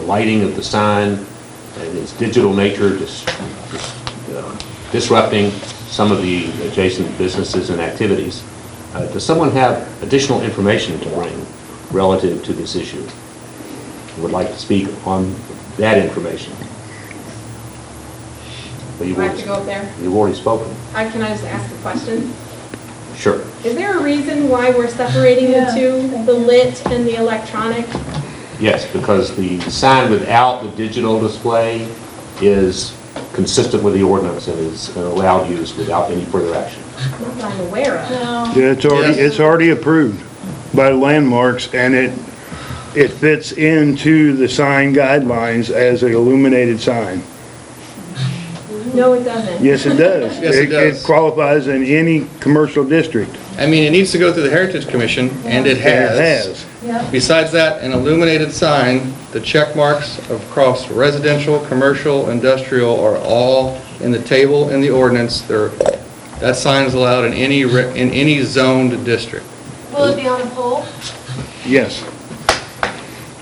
lighting of the sign and its digital nature dis- dis- uh, disrupting some of the adjacent businesses and activities. Uh, Does someone have additional information to bring relative to this issue? Would like to speak on that information? Well, you've Do I have already- to go up there? You've already spoken. I, can I just ask a question? Sure. Is there a reason why we're separating the Yeah, two, thank the you. lit and the electronic? Yes, because the sign without the digital display is consistent with the ordinance and is an allowed use without any further action. Not that I'm aware of. No, Yeah, it's already, Yes. it's already approved by landmarks, and it, it fits into the sign guidelines as an illuminated sign. Mm-hmm. No, it doesn't. Yes, it does. Yes, it does. It qualifies in any commercial district. I mean, it needs to go through the Heritage Commission, and And it it has. has. yeah, Besides that, an illuminated sign, the check marks across residential, commercial, industrial are all in the table in the ordinance. There, that sign is allowed in any, re- in any zoned district. will it be on a pole? Yes.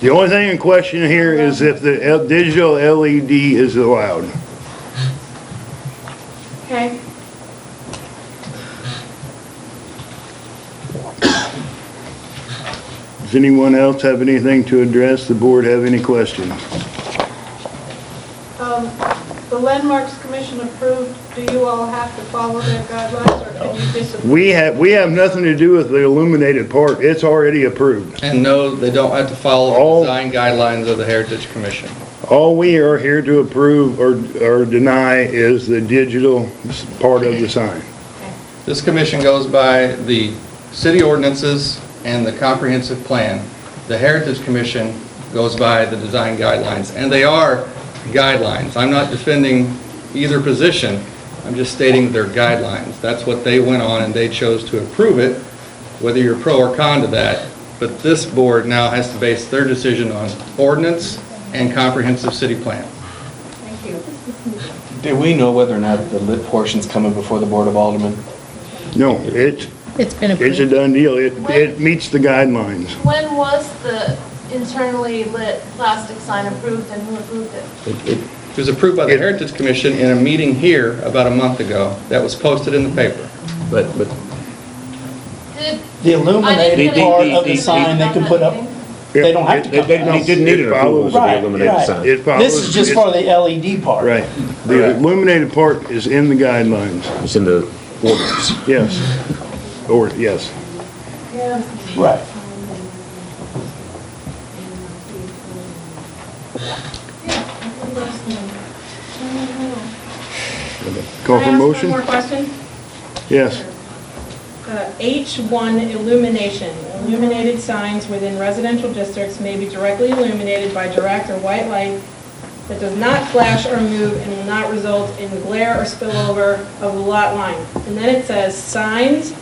The only thing in question here is if the L- digital LED is allowed. Okay. Does anyone else have anything to address? The board have any questions? Um, The Landmarks Commission approved, do you all have to follow their guidelines, or can you disagree? We have, we have nothing to do with the illuminated part. It's already approved. And no, they don't have to follow All- the design guidelines of the Heritage Commission. All we are here to approve or, or deny is the digital s- part of the sign. This commission goes by the city ordinances and the comprehensive plan. The Heritage Commission goes by the design guidelines, and they are guidelines. I'm not defending either position, I'm just stating they're guidelines. That's what they went on, and they chose to approve it, whether you're pro or con to that. But this board now has to base their decision on ordinance and comprehensive city plan. Thank you. Do we know whether or not the lit portion's coming before the Board of Aldermen? No, it's, It's been it's a approved. done deal. It, it meets the guidelines. When was the internally lit plastic sign approved and who approved it? It was approved by the Heritage Commission in a meeting here about a month ago. That was posted in the paper. But, but Did- The I didn't illuminated get a- part of the sign they can put up, they don't have to they come they- to they us. didn't need an It approval follows- for the Right, illuminated right. sign. It follows. This is just for the LED part. Right. The illuminated part is in the guidelines. It's in the ordinance. Yes. Or, yes. Right. Call for Can I motion? ask one more question? Yes. Uh, H1 illumination. Illuminated signs within residential districts may be directly illuminated by direct or white light that does not flash or move and will not result in glare or spillover of the lot line. And then it says, signs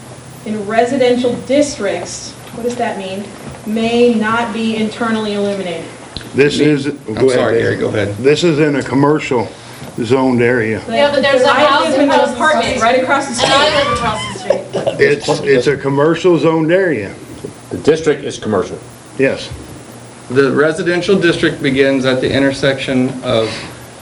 in residential districts, what does that mean? May not be internally illuminated. This is. go ahead, sorry, Dave. Gary, go ahead. This is in a commercial zoned area. Yeah, but there's a I house live in an across the apartment street. right across the And I street. live across the street. It's, it's a commercial zoned area. The district is commercial. Yes. The residential district begins at the intersection of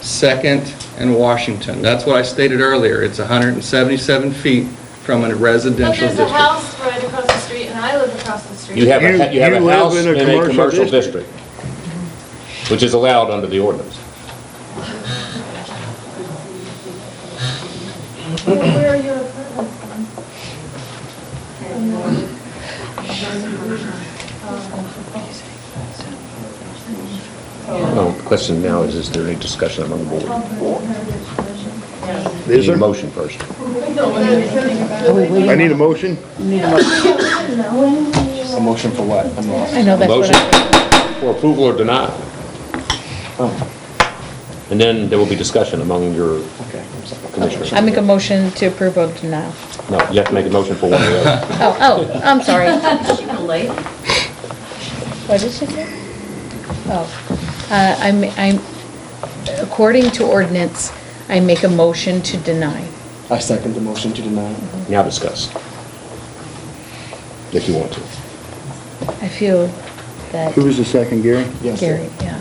Second and Washington. That's what I stated earlier. It's 177 feet from a But residential there's a district. house right across the street and I live across the street. You have a, You- you have a you live house in a in a commercial commercial district, district. which is allowed under the ordinance. Where are your apartments? No, the question now is, is there any discussion among the board? Is Need a there? motion first. I need a motion? A motion for what? I'm lost. I know that's what Motion I... for approval or denial. Oh. And then there will be discussion among your commissioners. I make a motion to approve of denial. No, you have to make a motion for one or the other. Oh, oh, I'm sorry. What did she say? Oh, uh, I'm, I'm, according to ordinance, I make a motion to deny. I second the motion to deny. Now discuss. If you want to. I feel that Who was the second, Gary? Yes, sir. Gary, yeah.